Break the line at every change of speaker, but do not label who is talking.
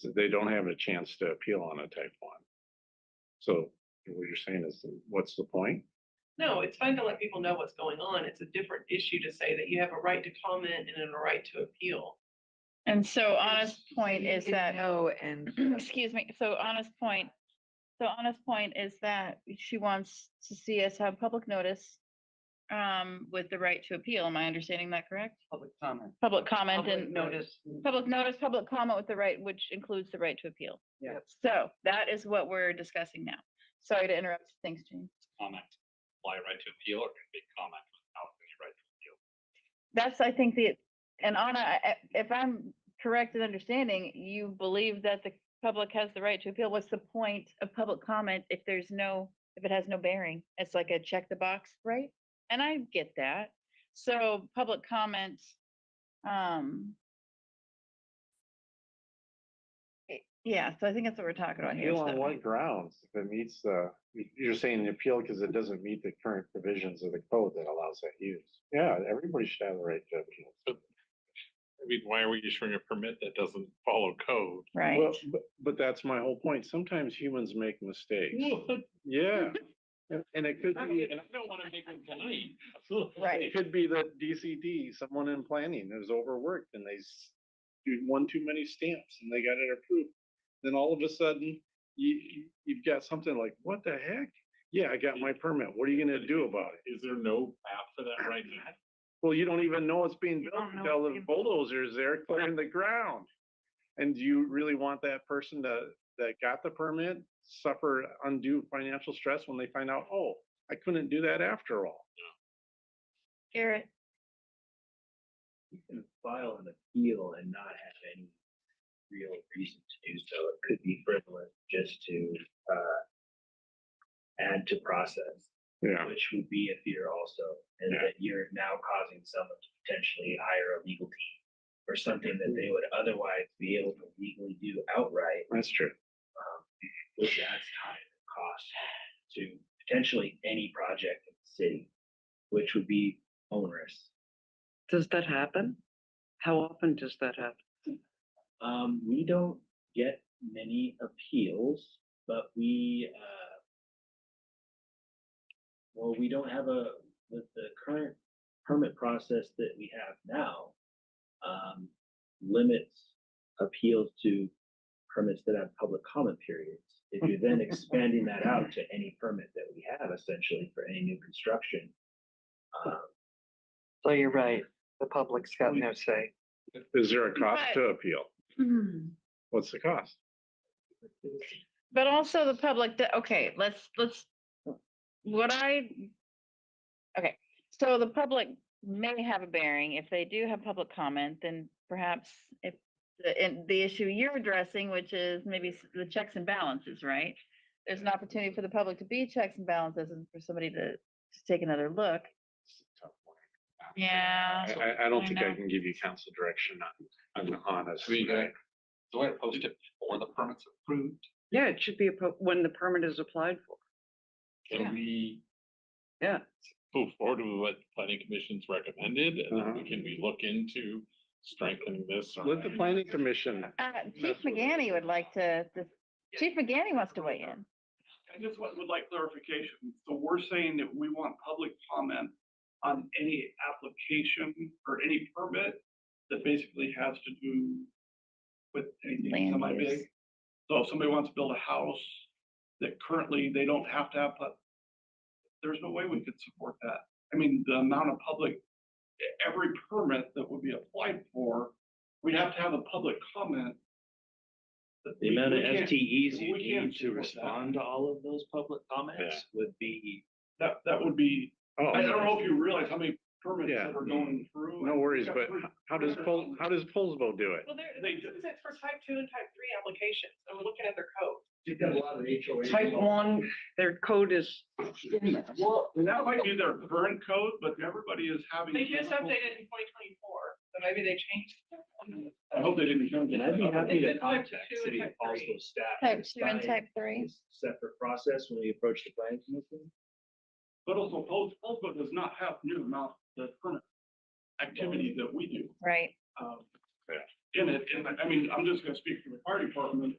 So They don't have a chance to appeal on a type one. So what you're saying is, what's the point?
No, it's fine to let people know what's going on. It's a different issue to say that you have a right to comment and a right to appeal.
And so honest point is that,
No, and
excuse me, so honest point, so honest point is that she wants to see us have public notice um, with the right to appeal. Am I understanding that correct?
public comment.
Public comment
Public
and
Notice.
public notice, public comment with the right, which includes the right to appeal.
Yeah.
So that is what we're discussing now. Sorry to interrupt. Thanks, Jane.
comment, apply right to appeal or can be comment without any right to appeal.
That's, I think, the, and Anna, I- I- if I'm correct in understanding, you believe that the public has the right to appeal. What's the point of public comment if there's no, if it has no bearing? It's like a check the box, right? And I get that. So public comment, um, i- eh, yeah, so I think that's what we're talking about here.
Appeal on
so-
what grounds? If it meets the, you- you're saying the appeal because it doesn't meet the current provisions of the code that allows that use. Yeah, everybody should have the right to appeal.
I mean, why are we issuing a permit that doesn't follow code?
Right.
Well, but, but that's my whole point. Sometimes humans make mistakes. Yeah. And- And it could be,
And I don't want to make them tonight. Absolutely.
Right.
it could be that DCD, someone in planning is overworked and they s- do one too many stamps and they got it approved. Then all of a sudden, you, you- you've got something like, what the heck? Yeah, I got my permit. What are you gonna do about it?
Is there no map for that right now?
Well, you don't even know it's being
You
built
don't know
until
it's
the
being built.
bulldozer's there clearing the ground. And do you really want that person to, that got the permit, suffer undue financial stress when they find out, oh, I couldn't do that after all?
Garrett,
you can file an appeal and not have any real reason to do so. It could be frivolous just to, uh, add to process,
Yeah.
which would be a fear also, and
Yeah.
that you're now causing someone to potentially hire a legal team for something that they would otherwise be able to legally do outright,
That's true.
um, which adds time and cost to potentially any project in the city, which would be onerous.
does that happen? How often does that happen?
Um, we don't get many appeals, but we, uh, well, we don't have a, with the current permit process that we have now, um, limits appeals to permits that have public comment periods. If you're then expanding that out to any permit that we have essentially for any new construction, um,
So you're right, the public's got no say.
Is there a cost
But- Mm-hmm.
to appeal? What's the cost?
But also the public, do- okay, let's, let's, what I, okay, so the public may have a bearing. If they do have public comment, then perhaps if, the- and the issue you're addressing, which is maybe s- the checks and balances, right? There's an opportunity for the public to be checks and balances and for somebody to, to take another look. Yeah.
I, I- I don't
I
think I
know.
can give you council direction on, on honest.
So you gotta- So I post it before the permit's approved.
Yeah, it should be a po- when the permit is applied for.
Yeah.
Can we?
Yeah.
Move forward with what the planning commission's recommended and
Uh-huh.
then can we look into strengthening this? or-
Let the planning commission,
Uh, Chief
That's what it
McGanny would like to, to-
Yeah.
Chief McGanny wants to weigh in.
I just would would like clarification. So we're saying that we want public comment on any application or any permit that basically has to do with anything
Land
semi-big.
use.
So if somebody wants to build a house that currently they don't have to have, but there's no way we could support that. I mean, the amount of public, every permit that would be applied for, we'd have to have a public comment. that
The
we-
amount of
we can't-
FTEs you
we can't
need to
support that.
respond to all of those public comments would be,
That, that would be
oh,
I I don't know if you realize how many permits
Yeah.
that are going through.
no worries,
Got
but
three-
how does Pol, how does Polsbo do it?
Well, there,
They
this
do.
is for type two and type three applications. I'm looking at their code.
you've got a lot of HOA.
Type one, their code is,
Well, that might be their current code, but everybody is having.
They just updated in twenty twenty-four, so maybe they changed. it.
I hope they didn't. change
And I'd be
it.
happy
It's
to
in type
contact
two and
city of
type three.
Paulsboro staff.
Type
and
two and
assign
type three.
this Separate process when we approach the planning commission.
But also, Pol- Polsco does not have new amount the permit activity that we do.
Right.
Um, in it, and I- I mean, I'm just gonna speak for the fire department,